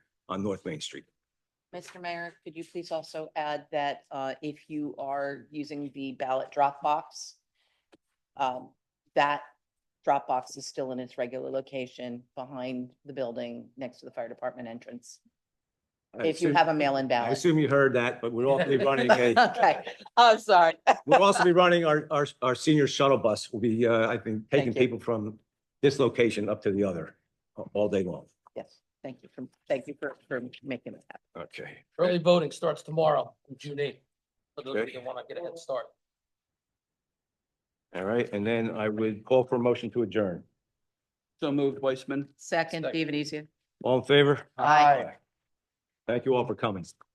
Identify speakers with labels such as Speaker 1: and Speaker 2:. Speaker 1: on North Main Street.
Speaker 2: Mr. Mayor, could you please also add that uh, if you are using the ballot drop box, um, that drop box is still in its regular location behind the building next to the fire department entrance.
Speaker 1: I
Speaker 2: If you
Speaker 1: assume-
Speaker 2: have a mail-in
Speaker 1: I
Speaker 2: ballot.
Speaker 1: assume you heard that, but we're also be running a,
Speaker 2: Okay, I'm sorry.
Speaker 1: we'll also be running our, our, our senior shuttle bus. We'll be, uh, I think, taking
Speaker 2: Thank you.
Speaker 1: people from this location up to the other a- all day long.
Speaker 2: Yes, thank you for, thank you for, for making that happen.
Speaker 1: Okay.
Speaker 3: Early voting starts tomorrow, on June eighth. For those of
Speaker 1: Okay.
Speaker 3: you that want to get a head start.
Speaker 1: All right, and then I would call for a motion to adjourn.
Speaker 4: So moved, Weissman.
Speaker 2: Second,
Speaker 3: Second.
Speaker 2: David Easy.
Speaker 1: All in favor?
Speaker 2: Aye.
Speaker 1: Thank you all for coming.